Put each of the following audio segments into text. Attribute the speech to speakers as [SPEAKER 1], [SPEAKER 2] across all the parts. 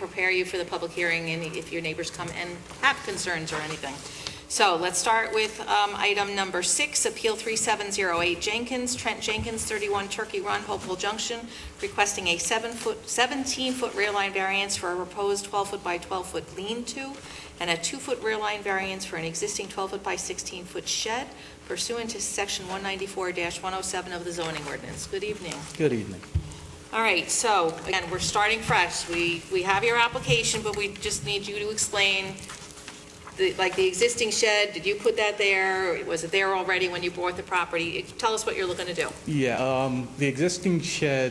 [SPEAKER 1] prepare you for the public hearing and if your neighbors come and have concerns or anything. So let's start with um, item number six, Appeal 3708 Jenkins, Trent Jenkins, 31 Turkey Run, Hopewell Junction, requesting a seven-foot, 17-foot rear line variance for a proposed 12-foot by 12-foot lean-to and a two-foot rear line variance for an existing 12-foot by 16-foot shed pursuant to Section 194-107 of the zoning ordinance. Good evening.
[SPEAKER 2] Good evening.
[SPEAKER 1] All right, so again, we're starting fresh. We, we have your application, but we just need you to explain, the like, the existing shed, did you put that there? Was it there already when you bought the property? Tell us what you're looking to do.
[SPEAKER 2] Yeah, um, the existing shed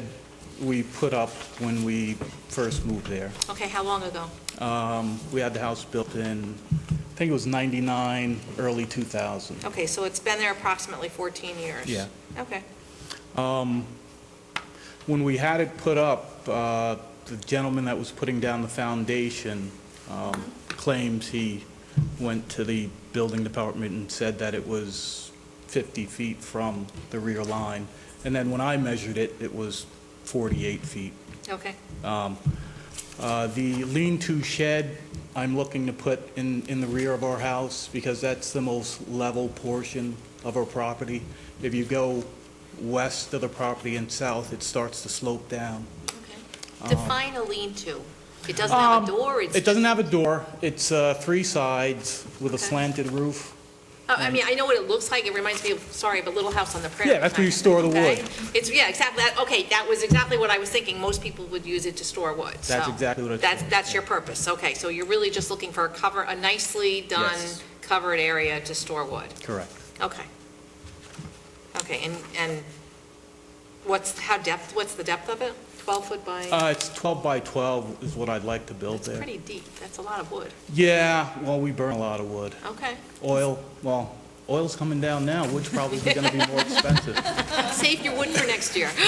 [SPEAKER 2] we put up when we first moved there.
[SPEAKER 1] Okay, how long ago?
[SPEAKER 2] Um, We had the house built in, I think it was 99, early 2000.
[SPEAKER 1] Okay, so it's been there approximately 14 years?
[SPEAKER 2] Yeah.
[SPEAKER 1] Okay,
[SPEAKER 2] When we had it put up, uh, the gentleman that was putting down the foundation um, claims he went to the building department and said that it was 50 feet from the rear line. And then when I measured it, it was 48 feet.
[SPEAKER 1] okay.
[SPEAKER 2] Uh, The lean-to shed, I'm looking to put in, in the rear of our house because that's the most level portion of our property. If you go west of the property and south, it starts to slope down.
[SPEAKER 1] Okay. Define a lean-to. It doesn't have a door, it's...
[SPEAKER 2] Um, It doesn't have a door. It's uh, three sides with a
[SPEAKER 1] Okay.
[SPEAKER 2] slanted roof.
[SPEAKER 1] Oh, I mean, I know what it looks like, it reminds me of, sorry, but Little House on the Prairie.
[SPEAKER 2] Yeah, that's where you store the wood.
[SPEAKER 1] Okay? It's, yeah, exactly, That- okay, that was exactly what I was thinking, most people would use it to store wood, so.
[SPEAKER 2] That's exactly what I was
[SPEAKER 1] That's,
[SPEAKER 2] thinking,
[SPEAKER 1] that's
[SPEAKER 2] yeah.
[SPEAKER 1] your purpose, okay, so you're really just looking for a cover, a nicely done
[SPEAKER 2] Yes.
[SPEAKER 1] covered area to store wood,
[SPEAKER 2] Correct.
[SPEAKER 1] okay. Okay, and, and what's, how depth, what's the depth of it? 12 foot by,
[SPEAKER 2] Uh, It's 12 by 12 is what I'd like to build
[SPEAKER 1] it's
[SPEAKER 2] there.
[SPEAKER 1] pretty deep, that's a lot of wood,
[SPEAKER 2] Yeah, well, we burn a lot of wood.
[SPEAKER 1] okay.
[SPEAKER 2] Oil, well, oil's coming down now, which probably is going to be more expensive.
[SPEAKER 1] Save your wood for next year.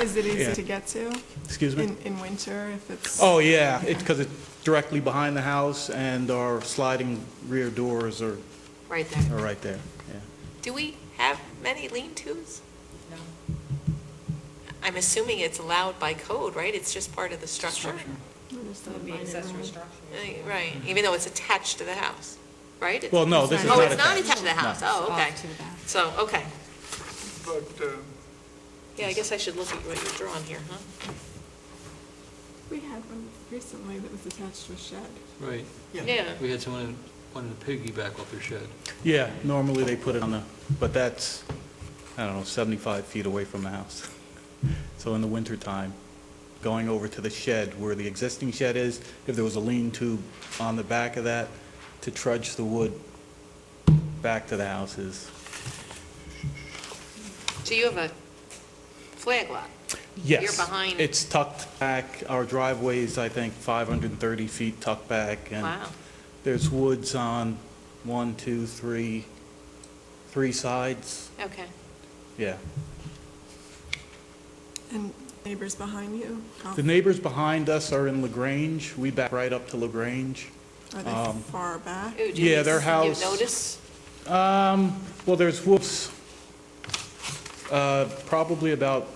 [SPEAKER 3] Is it
[SPEAKER 2] Yeah.
[SPEAKER 3] easy to get to
[SPEAKER 2] Excuse me?
[SPEAKER 3] in, in winter if it's?
[SPEAKER 2] Oh, yeah, it's because it's directly behind the house, and our sliding rear doors are,
[SPEAKER 1] Right there.
[SPEAKER 2] are right there, yeah.
[SPEAKER 1] Do we have many lean-tos? No. I'm assuming it's allowed by code, right? It's just part of the structure? Eh, Right, even though it's attached to the house, right? It's-
[SPEAKER 2] Well, no, this is
[SPEAKER 1] Oh,
[SPEAKER 2] not
[SPEAKER 1] it's not
[SPEAKER 2] attached.
[SPEAKER 1] attached to the house, oh, okay. So, okay.
[SPEAKER 4] But um,
[SPEAKER 1] Yeah, I guess I should look at what you've drawn here, huh?
[SPEAKER 3] We had one recently that was attached to a shed.
[SPEAKER 5] Right,
[SPEAKER 1] Yeah.
[SPEAKER 5] we had someone who wanted to piggyback off their shed.
[SPEAKER 2] Yeah, normally they put it on the, but that's, I don't know, 75 feet away from the house. So in the wintertime, going over to the shed where the existing shed is, if there was a lean-to on the back of that, to trudge the wood back to the house is,
[SPEAKER 1] So you have a flag lot?
[SPEAKER 2] yes.
[SPEAKER 1] behind-
[SPEAKER 2] It's tucked back, our driveway's, I think, 530 feet tucked back, and...
[SPEAKER 1] Wow.
[SPEAKER 2] There's woods on one, two, three, three sides,
[SPEAKER 1] Okay.
[SPEAKER 2] yeah.
[SPEAKER 3] And neighbors behind you, how-
[SPEAKER 2] The neighbors behind us are in LaGrange, we back right up to LaGrange.
[SPEAKER 3] are
[SPEAKER 2] Um,
[SPEAKER 3] they far back?
[SPEAKER 1] Ooh, do
[SPEAKER 2] Yeah,
[SPEAKER 1] you-
[SPEAKER 2] their house-
[SPEAKER 1] You notice?
[SPEAKER 2] Um, well, there's woods, uh, probably about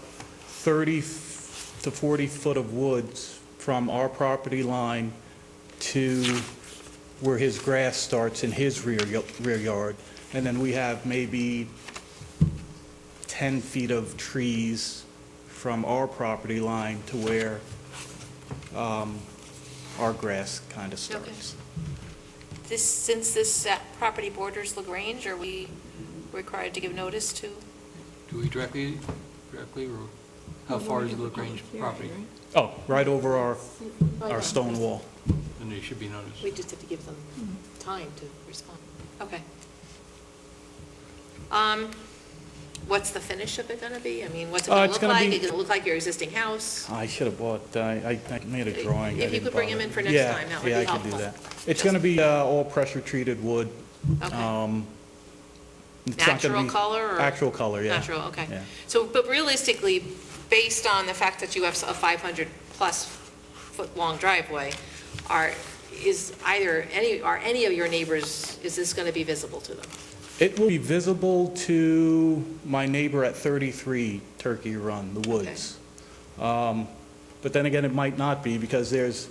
[SPEAKER 2] 30 f- to 40 foot of woods from our property line to where his grass starts in his rear, y- rear yard. And then we have maybe 10 feet of trees from our property line to where um, our grass kind of starts.
[SPEAKER 1] This, since this uh, property borders LaGrange, are we required to give notice to?
[SPEAKER 5] Do we directly, directly, or how far is the LaGrange property?
[SPEAKER 2] Oh, right over our,
[SPEAKER 1] Oh,
[SPEAKER 2] our stone wall.
[SPEAKER 5] And they should be noticed.
[SPEAKER 1] We just have to give them time to respond. Okay. Um, What's the finish of it going to be? I mean, what's it
[SPEAKER 2] Uh,
[SPEAKER 1] going to
[SPEAKER 2] it's
[SPEAKER 1] look
[SPEAKER 2] gonna
[SPEAKER 1] like? Is
[SPEAKER 2] be-
[SPEAKER 1] it going to look like your existing house?
[SPEAKER 2] I should have bought, uh, I, I I made a drawing. I
[SPEAKER 1] If you
[SPEAKER 2] didn't
[SPEAKER 1] could bring him
[SPEAKER 2] bother.
[SPEAKER 1] in for next
[SPEAKER 2] Yeah,
[SPEAKER 1] time, that would be
[SPEAKER 2] Yeah, I could do
[SPEAKER 1] helpful.
[SPEAKER 2] that. It's going to be uh, all pressure-treated wood.
[SPEAKER 1] Okay.
[SPEAKER 2] Um, it's not gonna
[SPEAKER 1] Natural
[SPEAKER 2] be-
[SPEAKER 1] color or-
[SPEAKER 2] Actual color, yeah.
[SPEAKER 1] Natural, okay.
[SPEAKER 2] Yeah.
[SPEAKER 1] So, but realistically, based on the fact that you have a 500-plus foot-long driveway, are, is either, any, are any of your neighbors, is this going to be visible to them?
[SPEAKER 2] It will be visible to my neighbor at 33 Turkey Run, the woods. Um, But then again, it might not be, because there's,